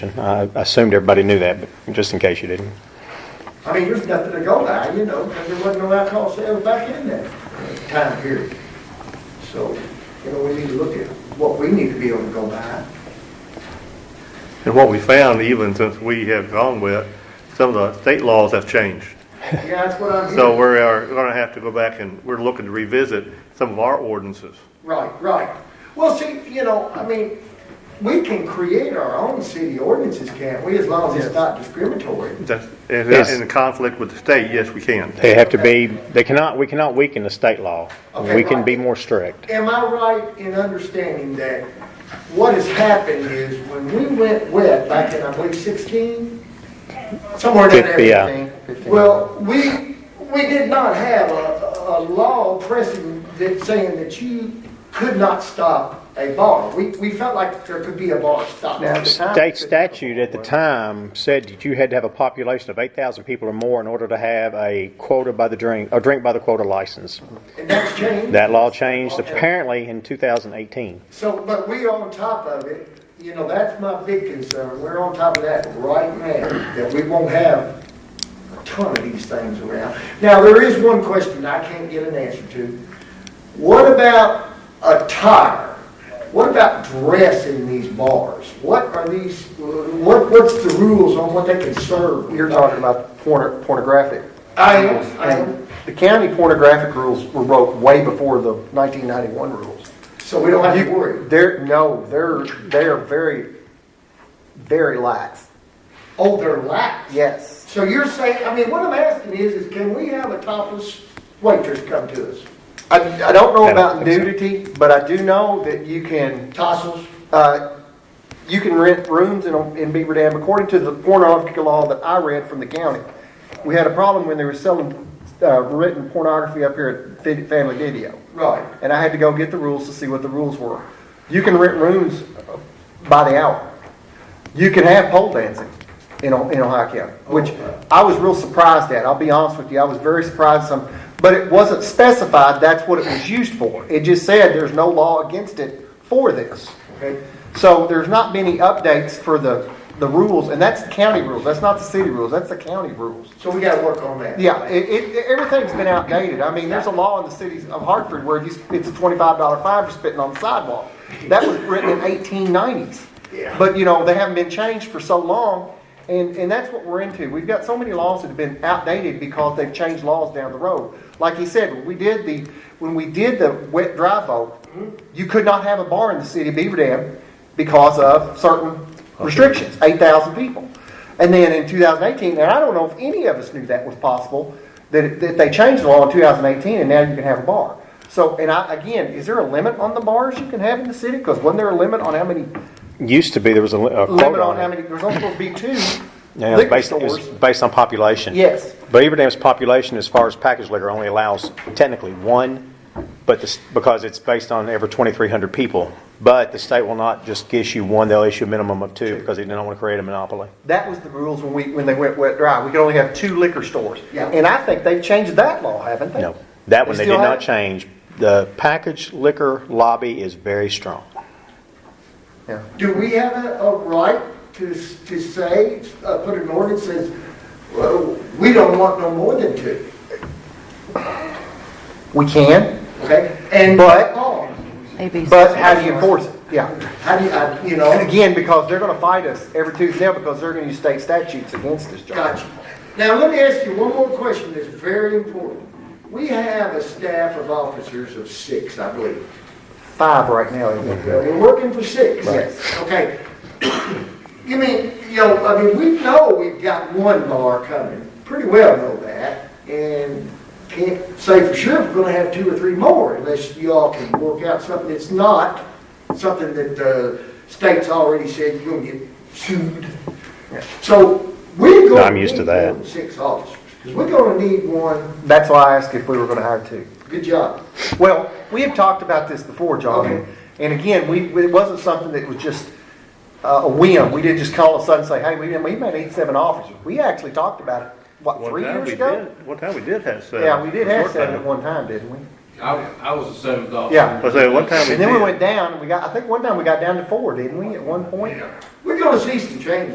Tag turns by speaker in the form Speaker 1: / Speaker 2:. Speaker 1: I assumed everybody knew that, but just in case you didn't.
Speaker 2: I mean, there's nothing to go by, you know, because there wasn't no alcohol sales back in that time period. So, you know, we need to look at what we need to be able to go by.
Speaker 3: And what we found, even since we have gone with, it, some of the state laws have changed.
Speaker 2: Yeah, that's what I'm hearing.
Speaker 3: So we are going to have to go back and we're looking to revisit some of our ordinances.
Speaker 2: Right, right. Well, see, you know, I mean, we can create our own city ordinances, can't we, as long as it's not discriminatory?
Speaker 3: That's, if
Speaker 1: Yes.
Speaker 3: that's in conflict with the state, yes, we can.
Speaker 1: They have to be, they cannot, we cannot weaken the state law.
Speaker 2: Okay,
Speaker 1: We can
Speaker 2: right.
Speaker 1: be more strict.
Speaker 2: Am I right in understanding that what has happened is when we went wet back in, I believe, 16, somewhere in that
Speaker 1: Fifty, yeah.
Speaker 2: area? Well, we, we did not have a, a law pressing that saying that you could not stop a bar. We, we felt like there could be a bar stop.
Speaker 1: State statute at the time said that you had to have a population of 8,000 people or more in order to have a quota by the drink, or drink by the quota license.
Speaker 2: And that's changed.
Speaker 1: That law changed apparently in 2018.
Speaker 2: So, but we on top of it, you know, that's my big concern, we're on top of that right now, that we won't have a ton of these things around. Now, there is one question I can't get an answer to. What about attire? What about dress in these bars? What are these, what, what's the rules on what they can serve?
Speaker 4: You're talking about porno- pornographic.
Speaker 2: I am, I am.
Speaker 4: The county pornographic rules were wrote way before the 1991 rules.
Speaker 2: So we don't have to
Speaker 4: You-
Speaker 2: worry.
Speaker 4: They're, no, they're, they are very, very lax.
Speaker 2: Oh, they're lax.
Speaker 4: Yes.
Speaker 2: So you're saying, I mean, what I'm asking is, is can we have a topless waitress come to us?
Speaker 4: I, I don't know
Speaker 1: I don't
Speaker 4: about
Speaker 1: think so.
Speaker 4: nudity, but I do know that you can,
Speaker 2: Tassels?
Speaker 4: uh, you can rent rooms in, in Beaver Dam according to the pornographic law that I read from the county. We had a problem when they were selling, uh, written pornography up here at Fi- Family Video.
Speaker 2: Right.
Speaker 4: and I had to go get the rules to see what the rules were. You can rent rooms by the hour. You can have pole dancing in, O- in Ohio County, which I was real surprised at. I'll be honest with you, I was very surprised some, but it wasn't specified that's what it was used for. It just said there's no law against it for this.
Speaker 2: Okay.
Speaker 4: So there's not many updates for the, the rules, and that's the county rules. That's not the city rules, that's the county rules.
Speaker 2: So we gotta work on that.
Speaker 4: Yeah, it, it, everything's been outdated. I mean, there's a law in the cities of Hartford where you, it's a twenty-five dollar fine for spitting on the sidewalk. That was written in eighteen nineties.
Speaker 2: Yeah.
Speaker 4: But, you know, they haven't been changed for so long, and, and that's what we're into. We've got so many laws that have been outdated because they've changed laws down the road. Like you said, when we did the, when we did the wet dry vote, you could not have a bar in the city of Beaver Dam because of certain restrictions, eight thousand people. And then in 2018, and I don't know if any of us knew that was possible, that, that they changed the law in 2018 and now you can have a bar. So, and I, again, is there a limit on the bars you can have in the city? Because wasn't there a limit on how many,
Speaker 1: Used to be, there was a li- a
Speaker 4: limit
Speaker 1: quota
Speaker 4: on how
Speaker 1: on it.
Speaker 4: many, there's only supposed to be two
Speaker 1: Yeah, it's
Speaker 4: liquor
Speaker 1: based- it's
Speaker 4: stores?
Speaker 1: Based on population.
Speaker 4: Yes.
Speaker 1: Beaver Dam's population, as far as packaged liquor, only allows technically one, but this, because it's based on every 2,300 people. But the state will not just issue one, they'll issue a minimum of two because they don't want to create a monopoly.
Speaker 4: That was the rules when we, when they went wet dry. We could only have two liquor stores.
Speaker 2: Yeah.
Speaker 4: And I think they've changed that law, haven't they?
Speaker 1: No, that one they did
Speaker 4: still
Speaker 1: not
Speaker 4: have it?
Speaker 1: change. The packaged liquor lobby is very strong.
Speaker 4: Yeah.
Speaker 2: Do we have a, a right to, s- to say, uh, put an ordinance that says, well, we don't want no more than two,
Speaker 4: We can,
Speaker 2: okay? And.
Speaker 4: But-
Speaker 2: Oh,
Speaker 5: Maybe.
Speaker 4: but how do you enforce it? Yeah.
Speaker 2: How do you, I- you
Speaker 4: And
Speaker 2: know,
Speaker 4: again, because they're gonna fight us every tooth and nail because they're gonna use state statutes against us, John.
Speaker 2: got you. Now, let me ask you one more question that's very important. We have a staff of officers of six, I believe.
Speaker 4: Five right now. isn't
Speaker 2: Yeah,
Speaker 4: it?
Speaker 2: We're working for six.
Speaker 4: Right.
Speaker 2: Okay. You mean, you know, I mean, we know we've got one bar coming, pretty well know that, and can't say for sure if we're gonna have two or three more unless you all can work out something that's not something that the state's already said you're gonna get sued. So we're gonna.
Speaker 1: No, I'm used to
Speaker 2: need
Speaker 1: that.
Speaker 2: more than Six officers, 'cause we're gonna need one,
Speaker 4: That's why I asked if we were gonna hire two.
Speaker 2: good job.
Speaker 4: Well, we have talked about this before,
Speaker 2: Okay.
Speaker 4: John. And again, we, it wasn't something that was just uh, a whim. We didn't just call a sudden and say, hey, we, we may need seven officers. We actually talked about it, what,
Speaker 3: One
Speaker 4: three
Speaker 3: time
Speaker 4: years
Speaker 3: we
Speaker 4: ago?
Speaker 3: did- One time we did have seven.
Speaker 4: Yeah, we did
Speaker 3: For a
Speaker 4: have
Speaker 3: short
Speaker 4: seven
Speaker 3: time.
Speaker 4: at one time, didn't we?
Speaker 6: I, I was the seventh officer.
Speaker 4: Yeah.
Speaker 3: I say, one time we
Speaker 4: And then we
Speaker 3: did.
Speaker 4: went down, and we got, I think one time we got down to four, didn't we, at one point?
Speaker 2: We're gonna see some changes.